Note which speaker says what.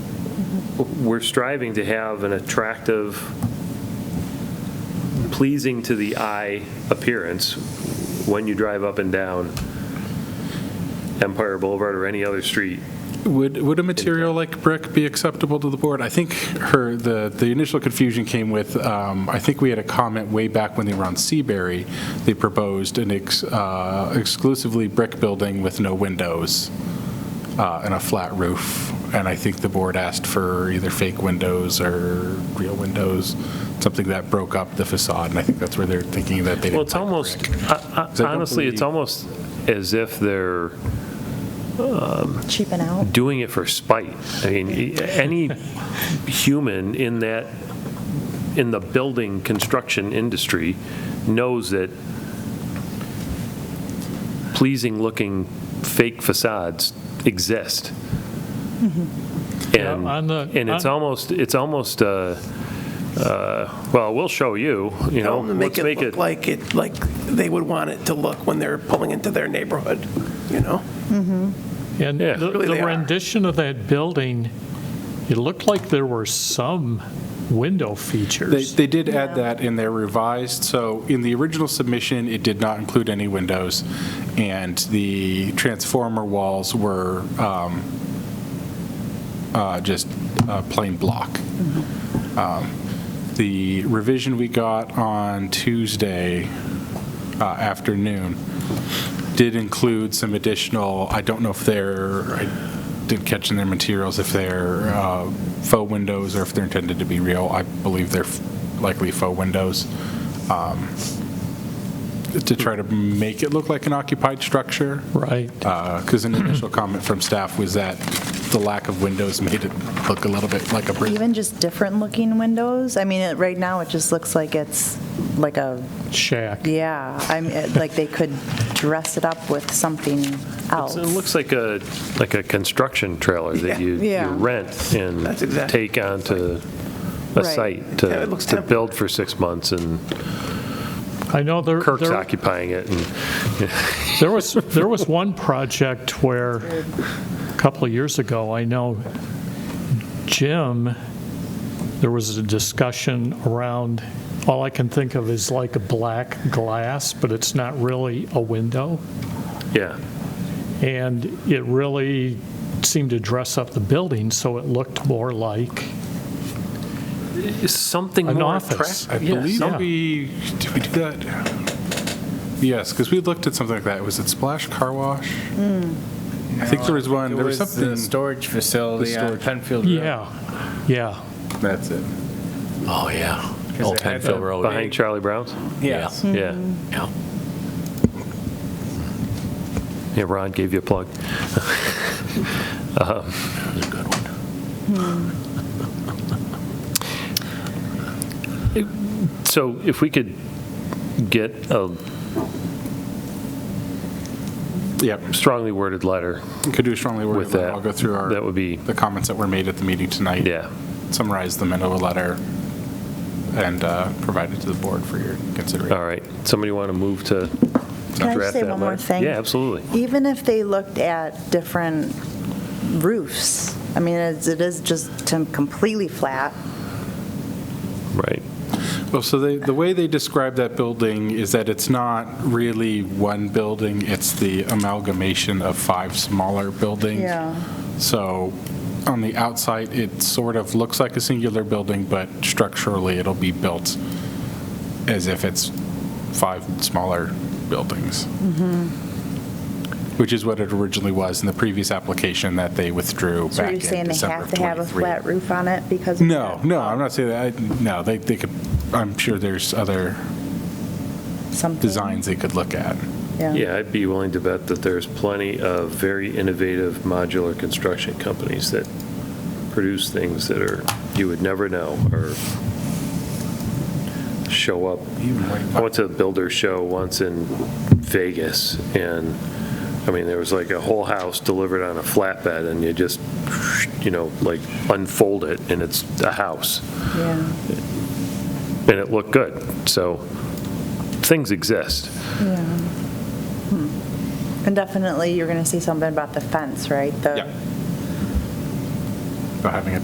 Speaker 1: we're striving to have an attractive, pleasing to the eye appearance when you drive up and down Empire Boulevard or any other street.
Speaker 2: Would, would a material like brick be acceptable to the board? I think her, the, the initial confusion came with, um, I think we had a comment way back when they were on Seabury, they proposed an ex- uh, exclusively brick building with no windows uh, and a flat roof. And I think the board asked for either fake windows or real windows, something that broke up the facade. And I think that's where they're thinking that they didn't
Speaker 1: Well, it's
Speaker 2: like
Speaker 1: almost,
Speaker 2: brick.
Speaker 1: I- I-
Speaker 2: don't
Speaker 1: honestly, it's
Speaker 2: believe-
Speaker 1: almost as if they're
Speaker 3: cheapen out.
Speaker 1: doing it for spite. I mean, e- any human in that, in the building construction industry knows that pleasing-looking fake facades exist. And,
Speaker 4: Yeah, on the-
Speaker 1: and it's
Speaker 4: on-
Speaker 1: almost, it's almost, uh, uh, well, we'll show you, you know.
Speaker 5: Tell them to make
Speaker 1: let's
Speaker 5: it look like it, like they would want it to look when they're pulling into their neighborhood, you know?
Speaker 4: And
Speaker 1: Yeah.
Speaker 4: the
Speaker 5: Really they
Speaker 4: the
Speaker 5: are.
Speaker 4: rendition of that building, it looked like there were some window
Speaker 2: They,
Speaker 4: features.
Speaker 2: they did add that in their revised, so in the original submission, it did not include any windows, and the transformer walls were um, uh, just uh, plain block. Um, The revision we got on Tuesday uh, afternoon did include some additional, I don't know if they're, I didn't catch in their materials if they're uh, faux windows or if they're intended to be real. I believe they're likely faux windows um, to try to make it look like an occupied structure.
Speaker 4: Right.
Speaker 2: Because an initial comment from staff was that the lack of windows made it look a little bit like a brick.
Speaker 3: Even just different looking windows. I mean, it- right now it just looks like it's like a,
Speaker 4: Shack.
Speaker 3: yeah, I'm, it- like they could dress it up with something else.
Speaker 1: It's- It looks like a, like a construction trailer that you you
Speaker 3: Yeah.
Speaker 1: rent and
Speaker 5: That's exactly-
Speaker 1: take onto a
Speaker 3: Right.
Speaker 1: site
Speaker 5: Yeah,
Speaker 1: to,
Speaker 5: it looks
Speaker 1: to
Speaker 5: temporary.
Speaker 1: build for six months, and
Speaker 4: I know there,
Speaker 1: Kirk's
Speaker 4: there-
Speaker 1: occupying it, and
Speaker 4: there was, there was one project where, a couple of years ago, I know Jim, there was a discussion around, all I can think of is like a black glass, but it's not really a window.
Speaker 1: yeah.
Speaker 4: And it really seemed to dress up the building, so it looked more like
Speaker 1: Something
Speaker 4: An
Speaker 1: more
Speaker 4: office.
Speaker 2: I
Speaker 1: attractive.
Speaker 2: believe
Speaker 4: yeah.
Speaker 2: we, did we do that? Yes, because we looked at something like that. Was it Splash Car Wash? I think there was one,
Speaker 6: Hmm. It
Speaker 2: there was
Speaker 6: was
Speaker 2: something.
Speaker 6: the storage facility
Speaker 2: The
Speaker 6: on
Speaker 2: storage.
Speaker 6: Penfield Road.
Speaker 4: Yeah, yeah.
Speaker 2: That's it.
Speaker 7: Oh, yeah.
Speaker 6: 'Cause
Speaker 7: Old
Speaker 6: it had
Speaker 7: Penfield
Speaker 6: the-
Speaker 7: Road.
Speaker 1: Behind Charlie Brown's?
Speaker 6: Yes.
Speaker 1: Yeah.
Speaker 7: Yeah.
Speaker 1: Yeah, Ron gave you a plug.
Speaker 7: That
Speaker 1: Um,
Speaker 7: was a good one.
Speaker 1: Hmm. So if we could get a
Speaker 2: Yep,
Speaker 1: strongly worded letter
Speaker 2: could do a strongly worded
Speaker 1: with
Speaker 2: letter.
Speaker 1: that.
Speaker 2: I'll go through
Speaker 1: That
Speaker 2: our,
Speaker 1: would be,
Speaker 2: the comments that were made at the meeting tonight.
Speaker 1: yeah.
Speaker 2: Summarize them into a letter and uh, provide it to the board for your consideration.
Speaker 1: All right. Somebody want to move to
Speaker 3: Can I
Speaker 1: draft
Speaker 3: say
Speaker 1: that
Speaker 3: one more
Speaker 1: letter?
Speaker 3: thing?
Speaker 1: Yeah, absolutely.
Speaker 3: Even if they looked at different roofs, I mean, it's- it is just to- completely flat.
Speaker 1: Right.
Speaker 2: Well, so they, the way they describe that building is that it's not really one building, it's the amalgamation of five smaller buildings. So on the outside, it sort of looks like a singular building, but structurally, it'll be built as if it's five smaller buildings.
Speaker 3: Mm-hmm.
Speaker 2: Which is what it originally was in the previous application that they withdrew
Speaker 3: So
Speaker 2: back
Speaker 3: you're
Speaker 2: in
Speaker 3: saying they
Speaker 2: December
Speaker 3: have
Speaker 2: of
Speaker 3: to have a
Speaker 2: 23.
Speaker 3: flat roof on it because? of
Speaker 2: No,
Speaker 3: that?
Speaker 2: no, I'm not saying that, I- no, they, they could, I'm sure there's other
Speaker 3: Something?
Speaker 2: designs they could look at.
Speaker 1: Yeah, I'd be willing to bet that there's plenty of very innovative modular construction companies that produce things that are, you would never know, or show up. I went to a builder show once in Vegas, and, I mean, there was like a whole house delivered on a flatbed, and you just, you know, like unfold it, and it's a house,
Speaker 3: Yeah.
Speaker 1: and it looked good. So, things exist.
Speaker 3: Yeah. Hmm. And definitely, you're going to see something about the fence, right? The-
Speaker 2: Yeah. About having a